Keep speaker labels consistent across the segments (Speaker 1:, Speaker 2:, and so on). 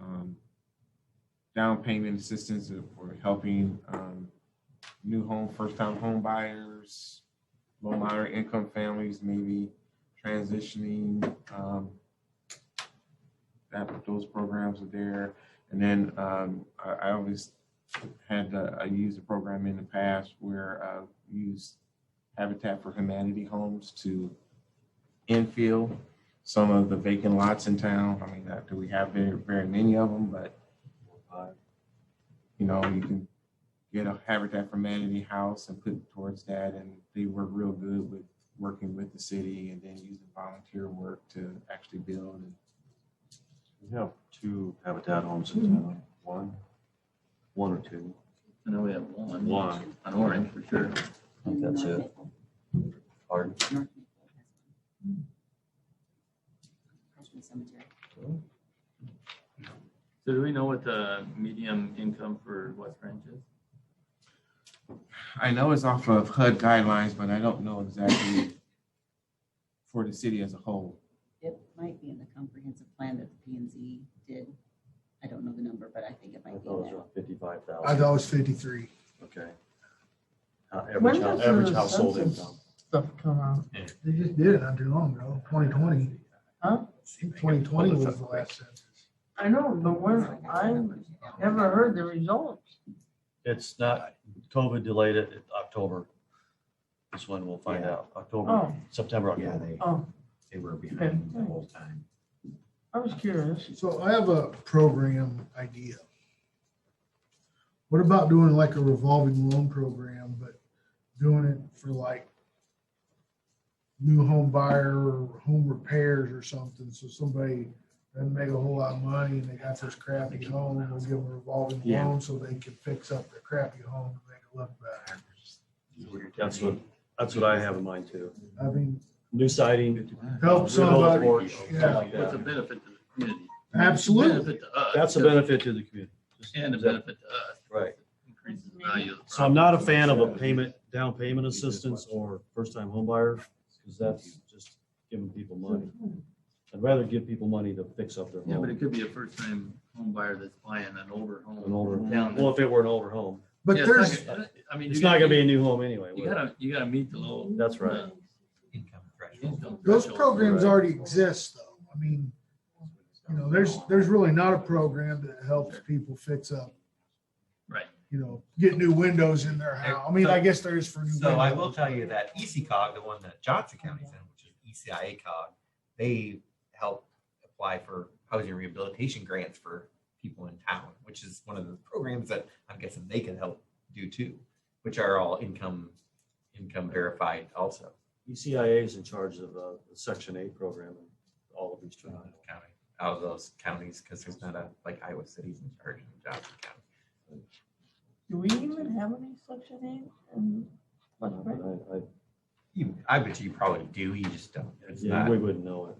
Speaker 1: um, down payment assistance for helping um, new home, first-time home buyers, low moderate income families, maybe transitioning. um, That, those programs are there. And then um, I I always had, uh, I used a program in the past where I used Habitat for Humanity homes to infill some of the vacant lots in town. I mean, not do we have very, very many of them, but, uh, you know, you can get a Habitat for Humanity house and put towards that, and they work real good with working with the city and then using volunteer work to actually build. And
Speaker 2: We have two Habitat homes in town, one, one or two.
Speaker 3: I know we have one.
Speaker 2: One.
Speaker 3: On Orange, for sure.
Speaker 2: I think that's it. Pardon?
Speaker 4: Freshman cemetery.
Speaker 3: So do we know what the medium income for West Branch is?
Speaker 1: I know it's off of HUD guidelines, but I don't know exactly for the city as a whole.
Speaker 4: It might be in the comprehensive plan that the P and Z did. I don't know the number, but I think it
Speaker 2: I
Speaker 4: might be
Speaker 2: thought
Speaker 4: in
Speaker 2: it
Speaker 4: there.
Speaker 2: was fifty-five
Speaker 5: I
Speaker 2: thousand,
Speaker 5: thought it was fifty-three.
Speaker 2: okay. Uh, Average, hou- average household income.
Speaker 6: Stuff come out.
Speaker 5: They just did it not too long ago, twenty twenty.
Speaker 6: Huh?
Speaker 5: Twenty twenty was the last census.
Speaker 6: I know, but
Speaker 4: It's
Speaker 6: when,
Speaker 4: like I
Speaker 6: I
Speaker 4: don't remember. Yeah.
Speaker 6: never heard the results.
Speaker 2: It's not, COVID delayed it, it- October. This one we'll find
Speaker 7: Yeah.
Speaker 2: out, October,
Speaker 6: Oh,
Speaker 2: September,
Speaker 7: Yeah,
Speaker 2: October.
Speaker 7: they,
Speaker 6: oh,
Speaker 7: they were behind the whole time.
Speaker 6: I was curious.
Speaker 5: So I have a program idea. What about doing like a revolving loan program, but doing it for like new home buyer or home repairs or something? So somebody doesn't make a whole lot of money and they got this crappy home, we'll give them a revolving
Speaker 7: Yeah.
Speaker 5: loan so they can fix up their crappy home to make it look better.
Speaker 2: That's what, that's what I have in mind too.
Speaker 5: I mean,
Speaker 2: New siding.
Speaker 5: help somebody.
Speaker 2: remodeling, something
Speaker 5: yeah.
Speaker 2: like
Speaker 3: What's a
Speaker 2: that.
Speaker 3: benefit to the community?
Speaker 5: Absolutely.
Speaker 3: Benefit to us.
Speaker 2: That's a benefit to the community. Just-
Speaker 3: And a benefit to us.
Speaker 2: Right.
Speaker 3: Increases the value of the
Speaker 2: So I'm not a fan of a payment, down payment assistance or first-time home buyer, because that's just giving people money. I'd rather give people money to fix up their
Speaker 3: Yeah, but
Speaker 2: home.
Speaker 3: it could be a first-time home buyer that's buying an older home.
Speaker 2: An older
Speaker 3: Down
Speaker 2: home.
Speaker 3: there.
Speaker 2: Well, if it were an older home,
Speaker 5: But
Speaker 3: Yeah, it's
Speaker 5: there's,
Speaker 3: not gonna- I mean.
Speaker 2: it's
Speaker 3: you
Speaker 2: not
Speaker 3: gotta-
Speaker 2: gonna be a new home anyway.
Speaker 3: You
Speaker 2: would it?
Speaker 3: gotta, you gotta meet the low. uh,
Speaker 2: That's right.
Speaker 7: Income threshold.
Speaker 3: income
Speaker 5: those
Speaker 3: threshold.
Speaker 5: programs
Speaker 2: Right.
Speaker 5: already exist though. I mean, you know, there's, there's really not a program uh, that helps people fix up,
Speaker 3: Right.
Speaker 5: you know, get new windows in their house. I mean, I guess there is for new.
Speaker 7: So I will
Speaker 5: windows.
Speaker 7: tell you that E ECOG, the one that Johnson County's in, which is E ECIA cog, they help apply for housing rehabilitation grants for people in town, which is one of the programs that I'm guessing they can help do too, which are all income, income verified also.
Speaker 2: E ECIA is in charge of uh, the Section Eight program in all of Eastern Iowa.
Speaker 7: County, out of those counties, because there's not a, like Iowa City's in charge of Johnson County.
Speaker 6: Do we even have any section eight in West
Speaker 2: But
Speaker 6: Branch?
Speaker 2: I- I-
Speaker 7: You, I bet you probably do, you just don't. It's
Speaker 2: Yeah,
Speaker 7: not.
Speaker 2: we wouldn't know it.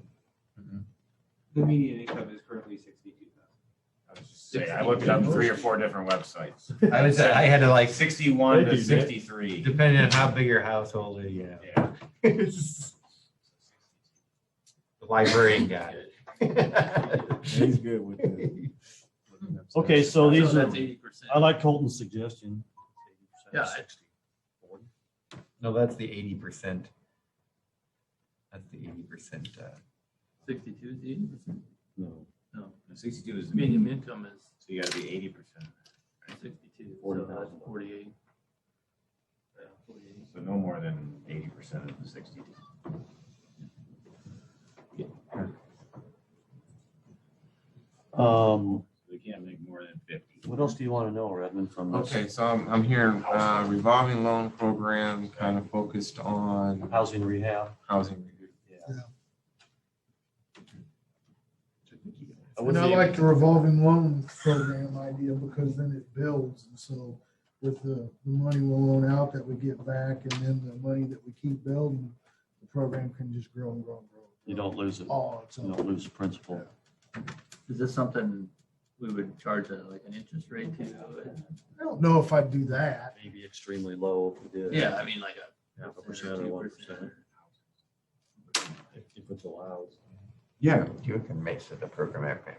Speaker 8: The median income is currently sixty-two thousand.
Speaker 9: I was just saying, I looked it up three or four different websites.
Speaker 7: I was, I had to like,
Speaker 9: Sixty-one
Speaker 2: They do
Speaker 9: to
Speaker 2: that.
Speaker 9: sixty-three.
Speaker 7: depending on how big your household is, yeah.
Speaker 9: Yeah.
Speaker 7: The librarian guy.
Speaker 1: He's good with the. with the website.
Speaker 2: Okay, so these are,
Speaker 3: That's eighty percent.
Speaker 2: I like Colton's suggestion.
Speaker 3: Yeah, I-
Speaker 2: 60, 40.
Speaker 7: No, that's the eighty percent. That's the eighty percent, uh,
Speaker 3: Sixty-two is eighty percent?
Speaker 2: No,
Speaker 3: No.
Speaker 9: Sixty-two is the median,
Speaker 3: Medium income is
Speaker 9: so you gotta be eighty percent,
Speaker 3: sixty-two.
Speaker 2: Forty
Speaker 3: so that's
Speaker 2: thousand.
Speaker 3: Forty-eight. Yeah, forty-eight.
Speaker 9: so no more than eighty percent of the sixty.
Speaker 2: Um,
Speaker 9: We can't make more than fifty.
Speaker 2: what else do you want to know, Redmond, from this?
Speaker 1: Okay, so I'm, I'm hearing uh, revolving loan program kind of focused on
Speaker 2: Housing rehab.
Speaker 1: housing.
Speaker 2: What's
Speaker 5: And I
Speaker 2: the-
Speaker 5: like the revolving loan program idea because then it builds. And so with the the money we loan out that we get back and then the money that we keep building, the program can just grow and grow and grow.
Speaker 2: You don't lose it. You
Speaker 5: All its own.
Speaker 2: don't lose the principal.
Speaker 3: Is this something we would charge a- like an interest rate to? uh,
Speaker 5: I don't know if I'd do that.
Speaker 2: Maybe extremely low if we did.
Speaker 3: Yeah, I mean, like
Speaker 2: Half
Speaker 3: a
Speaker 2: a
Speaker 3: percent
Speaker 2: percent
Speaker 3: or
Speaker 2: or
Speaker 3: two
Speaker 2: one
Speaker 3: percent.
Speaker 2: percent. If if it's allowed.
Speaker 1: Yeah,
Speaker 7: you can make it a program, I think.